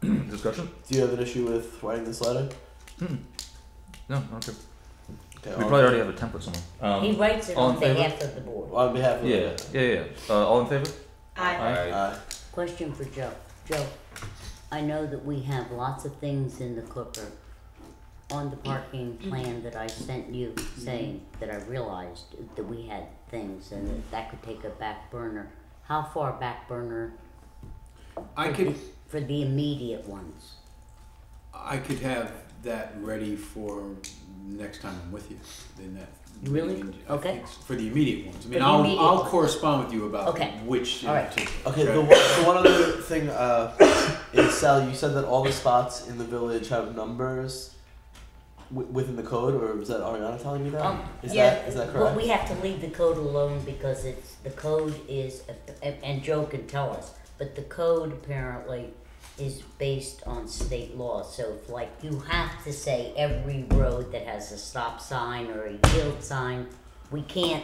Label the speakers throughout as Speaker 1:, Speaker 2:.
Speaker 1: discussion?
Speaker 2: Do you have an issue with writing this letter?
Speaker 1: No, okay.
Speaker 2: Okay,
Speaker 1: We
Speaker 2: on-
Speaker 1: probably already have a template somewhere.
Speaker 3: He
Speaker 1: Um,
Speaker 3: writes it
Speaker 1: all
Speaker 3: on
Speaker 1: in favor?
Speaker 3: behalf of the board.
Speaker 2: on behalf of
Speaker 1: yeah, yeah, yeah. Uh, all in favor?
Speaker 4: I,
Speaker 1: Aye.
Speaker 2: Uh,
Speaker 3: Question for Joe. Joe, I know that we have lots of things in the clipper on the parking plan that I sent you saying that I realized that we had things and that that could take a back burner. How far back burner
Speaker 5: I
Speaker 3: for
Speaker 5: could,
Speaker 3: the- for the immediate ones?
Speaker 5: I could have that ready for next time I'm with you. In that
Speaker 3: You really?
Speaker 5: meeting. I
Speaker 3: Okay.
Speaker 5: think s- For the immediate ones. I mean,
Speaker 3: the
Speaker 5: I'll
Speaker 3: immediate
Speaker 5: I'll
Speaker 3: ones.
Speaker 5: correspond with you about
Speaker 3: Okay.
Speaker 5: which. in
Speaker 3: All right.
Speaker 5: particular.
Speaker 2: okay. The,
Speaker 5: Okay.
Speaker 2: one- the one other thing uh, is Sal. You said that all the spots in the village have numbers w- within the code, or was that Ariana telling me that? Is
Speaker 3: Um,
Speaker 4: yeah,
Speaker 2: that is that
Speaker 3: Well,
Speaker 2: correct?
Speaker 3: we have to leave the code alone because it's, the code is, and- and Joe can tell us, but the code apparently is based on state law, so if like you have to say every road that has a stop sign or a yield sign, we can't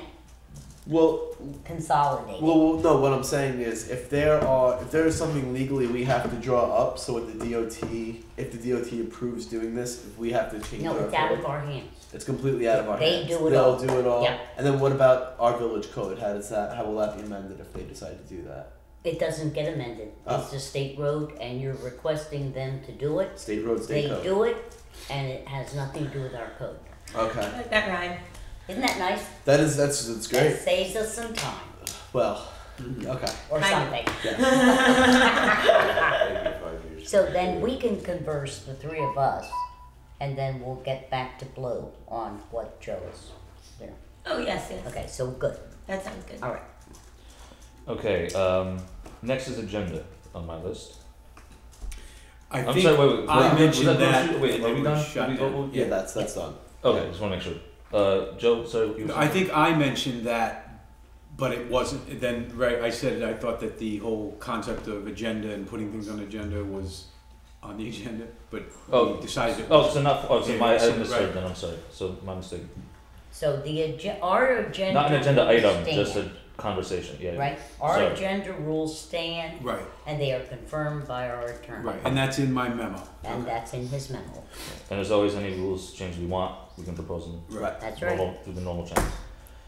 Speaker 2: well,
Speaker 3: consolidate. it.
Speaker 2: Well, well, no. What I'm saying is, if there are, if there is something legally we have to draw up, so what the DOT, if the DOT approves doing this, if we have to change
Speaker 3: No,
Speaker 2: our
Speaker 3: it's out
Speaker 2: code,
Speaker 3: of our hands.
Speaker 2: it's completely out of our
Speaker 3: They
Speaker 2: hands.
Speaker 3: do it
Speaker 2: They'll
Speaker 3: all.
Speaker 2: do it all.
Speaker 3: Yeah.
Speaker 2: And then what about our village code? How does that? How will that be amended if they decide to do that?
Speaker 3: It doesn't get amended.
Speaker 2: Oh.
Speaker 3: It's a state road and you're requesting them to do it.
Speaker 2: State road, state
Speaker 3: They
Speaker 2: code.
Speaker 3: do it and it has nothing to do with our code.
Speaker 2: Okay,
Speaker 4: like that rhyme.
Speaker 3: Isn't that nice?
Speaker 2: that is that's that's great.
Speaker 3: That saves us some time
Speaker 2: Well, okay.
Speaker 3: or
Speaker 4: Kind of.
Speaker 3: something.
Speaker 2: Yeah.
Speaker 3: So then we can converse, the three of us, and then we'll get back to blue on what Joe is. You know.
Speaker 4: Oh yes, yes.
Speaker 3: Okay, so good.
Speaker 4: That sounds good.
Speaker 3: All right.
Speaker 1: Okay. Um, next is agenda on my list.
Speaker 5: I
Speaker 1: I'm
Speaker 5: think
Speaker 1: sorry, wait, wait, was that-
Speaker 5: I
Speaker 1: was
Speaker 5: mentioned
Speaker 1: that
Speaker 5: that.
Speaker 1: motion- wait,
Speaker 5: when
Speaker 1: are we
Speaker 5: we
Speaker 1: done?
Speaker 5: shut
Speaker 1: We-
Speaker 5: down.
Speaker 1: what-
Speaker 2: Yeah, that's that's done.
Speaker 1: Okay, just want to make sure. Uh, Joe, sorry. You
Speaker 5: I think I mentioned that, but it wasn't. Then right, I said I thought that the whole concept of agenda and putting things on agenda was on the agenda, but
Speaker 1: Oh.
Speaker 5: we decided. It
Speaker 1: Oh,
Speaker 5: wasn't.
Speaker 1: so not. Oh, so
Speaker 5: Yeah,
Speaker 1: my.
Speaker 5: so-
Speaker 1: I misheard.
Speaker 5: right.
Speaker 1: Then I'm sorry. So my mistake.
Speaker 3: So the agenda, our agenda.
Speaker 1: Not an agenda item,
Speaker 3: rules
Speaker 1: just a
Speaker 3: stand,
Speaker 1: conversation. Yeah.
Speaker 3: Right? Our
Speaker 1: Sorry.
Speaker 3: agenda rules stand
Speaker 5: Right,
Speaker 3: and they are confirmed by our attorney.
Speaker 5: right, and that's in my memo.
Speaker 3: And that's in his memo.
Speaker 1: And as always, any rules change we want, we can propose them
Speaker 5: Right.
Speaker 3: That's right.
Speaker 1: normal, through the normal channels.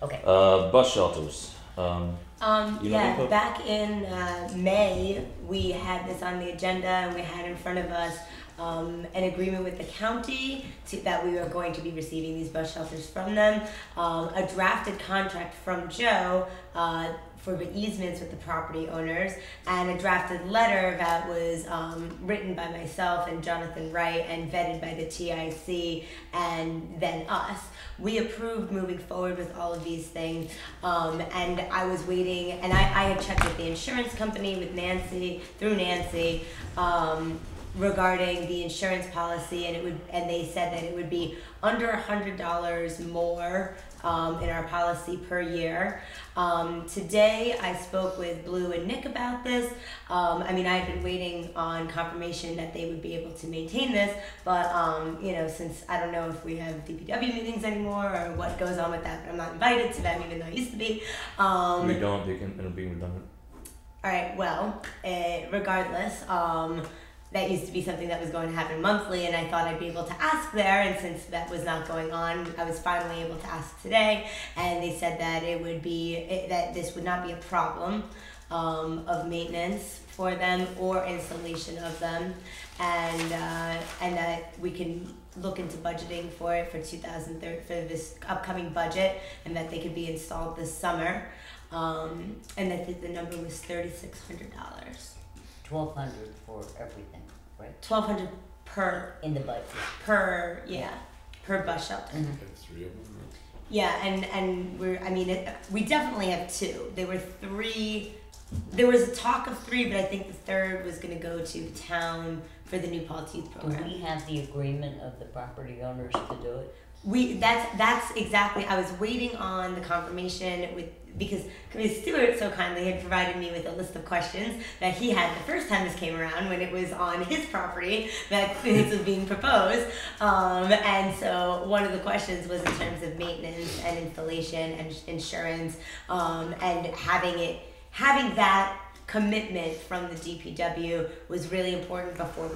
Speaker 3: Okay.
Speaker 1: Uh, bus shelters. Um,
Speaker 4: Um,
Speaker 1: You know
Speaker 4: yeah,
Speaker 1: people?
Speaker 4: back in uh, May, we had this on the agenda and we had in front of us um, an agreement with the county to, that we were going to be receiving these bus shelters from them, um, a drafted contract from Joe uh, for the easements with the property owners, and a drafted letter that was um, written by myself and Jonathan Wright and vetted by the TIC and then us. We approved moving forward with all of these things. Um, and I was waiting, and I, I had checked with the insurance company, with Nancy, through Nancy, um, regarding the insurance policy, and it would, and they said that it would be under a hundred dollars more um, in our policy per year. Um, today, I spoke with Blue and Nick about this. Um, I mean, I had been waiting on confirmation that they would be able to maintain this, but um, you know, since I don't know if we have DPW meetings anymore or what goes on with that, but I'm not invited to them, even though I used to be. Um,
Speaker 1: we don't. They can. It'll be redundant.
Speaker 4: all right. Well, eh, regardless, um, that used to be something that was going to happen monthly, and I thought I'd be able to ask there. And since that was not going on, I was finally able to ask today, and they said that it would be it, that this would not be a problem um, of maintenance for them or installation of them, and uh, and that we can look into budgeting for it for 2003 for this upcoming budget, and that they could be installed this summer um, and that the, the number was thirty six hundred dollars,
Speaker 3: Twelve hundred for everything, right?
Speaker 4: twelve hundred per
Speaker 3: In the budget.
Speaker 4: per yeah per bus shelter.
Speaker 5: Mm-hmm.
Speaker 6: Three of them.
Speaker 4: Yeah, and and we're I mean it, we definitely have two. There were three. There was a talk of three, but I think the third was going to go to the town for the new Paul Youth
Speaker 3: Do
Speaker 4: program.
Speaker 3: we have the agreement of the property owners to do it?
Speaker 4: We that's that's exactly. I was waiting on the confirmation with because Ms. Stewart so kindly had provided me with a list of questions that he had the first time this came around when it was on his property that this was being proposed. Um, and so one of the questions was in terms of maintenance and installation and ins- insurance um, and having it having that commitment from the DPW was really important before we